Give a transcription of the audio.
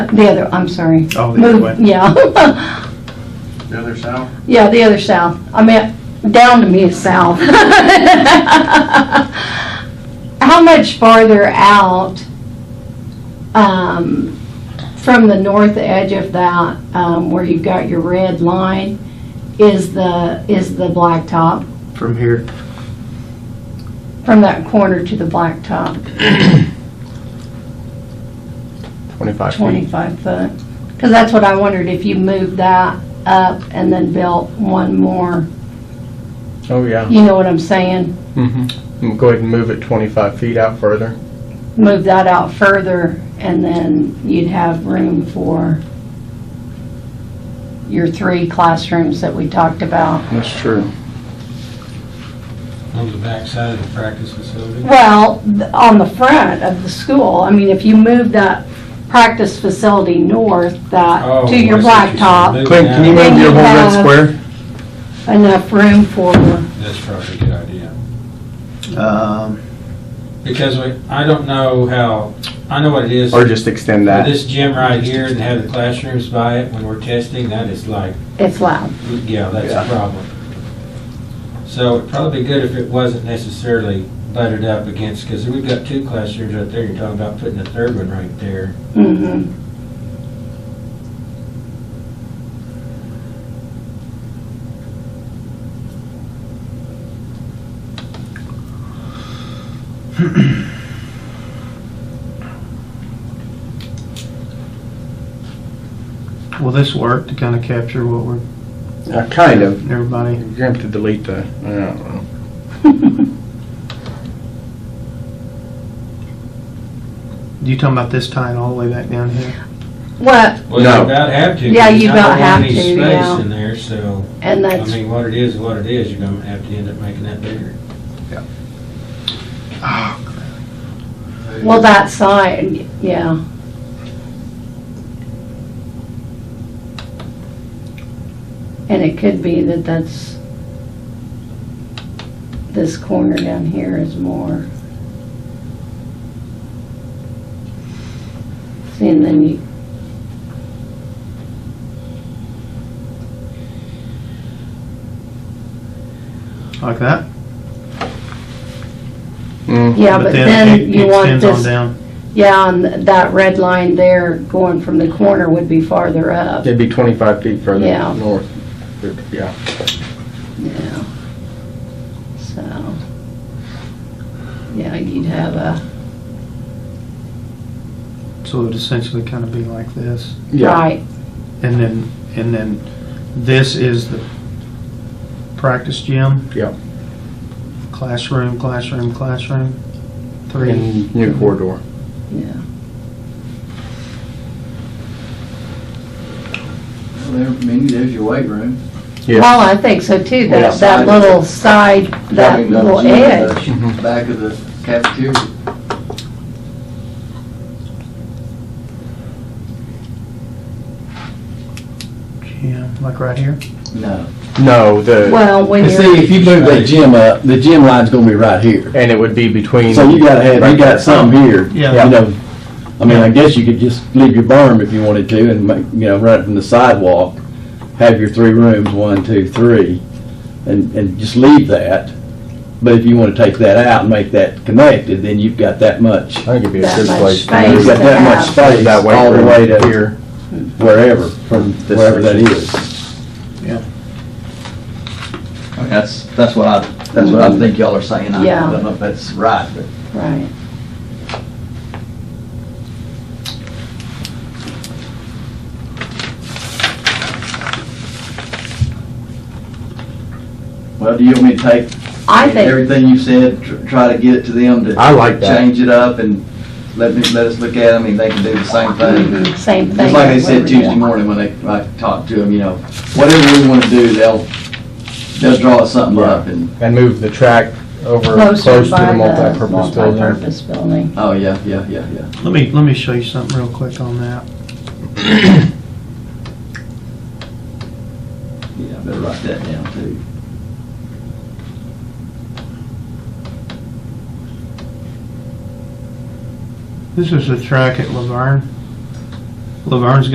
The other, I'm sorry. Oh, the other Move- way. Yeah. The other south? Yeah, the other south. I meant, down to me is south. How much farther out um, from the north edge of that, um, where you've got your red line, is the, is the blacktop? From here. From that corner to the blacktop, 25 feet. 25 foot? Because that's what I wondered, if you moved that up and then built one more, Oh, yeah. you know what I'm saying? Mm-hmm. Go ahead and move it 25 feet out further. move that out further, and then you'd have room for your three classrooms that we talked about. That's true. On the backside of the practice facility? Well, th- on the front of the school, I mean, if you move that practice facility north, that, Oh, to your I see what you're saying. blacktop, Clint, can you Then move your you whole red have- square? enough room for, That's probably a good idea. Um, Because we, I don't know how, I know what it is. Or just extend that? This gym right here and have the classrooms by it when we're testing, that is like, it's loud. yeah, that's Yeah. a problem. So it'd probably be good if it wasn't necessarily butted up against, because we've got two classrooms right there. You're talking about putting a third one right there. Mhm. Will this work to kind of capture what we're, Uh, Kind of. everybody? You're going to have to delete the, I don't know. You talking about this tying all the way back down here? What, Well, No. you about have to. Yeah, you because about have I to, don't want any yeah. space in there, so, and I that's, mean, what it is, what it is, you're gonna have to end up making that bigger. Oh, well, that side, yeah. And it could be that that's, this corner down here is more. See, and then you, Like that? Mm. yeah, but it- then it you want extends on this, down. yeah, and that red line there going from the corner would be farther up. It'd be 25 feet further Yeah. north. Yeah. Yeah. So, yeah, you'd have a, So it would essentially kind of be like this. Yeah. right, And then, and then this is the practice gym? Yep. Classroom, classroom, classroom? Three? And new corridor. yeah. Well, there, maybe there's your weight room. Yeah. Well, I think so too, Yeah, that, that side of little it. side, Probably that another little gym at edge. the Mhm. Back of the cafeteria. Gym, like right here? No. No, the, Well, when You you're, see, if you move that gym up, the gym line's gonna be right here. and it would be between. So you gotta have, you got something here. Yeah. You know, I mean, I guess you could just leave your berm if you wanted to and make, you know, run it from the sidewalk. Have your three rooms, one, two, three, and, and just leave that. But if you wanna take that out and make that connected, then you've got that much, I think it'd be a That good much place. to space move you've got it. that much have- space That way all the from way to here. wherever, from This wherever that section. is. I mean, That's, that's what I, that's what I think y'all are saying. I Yeah. don't know if that's right, but right, Well, do you want me to take I think, everything you said, tr- try to get it to them to? I like that. Change it up and let me, let us look at it. I mean, they can do the same thing. mhm, same thing. Just like they said whatever you Tuesday want. morning when they, I talked to them, you know, whatever we want to do, they'll, they'll draw something up and, And move the track over Closer close to the by the multipurpose building. multi-purpose building. oh, yeah, yeah, yeah, yeah. Let me, let me show you something real quick on that. Yeah, I better write that down too. This is the track at Laverne. Laverne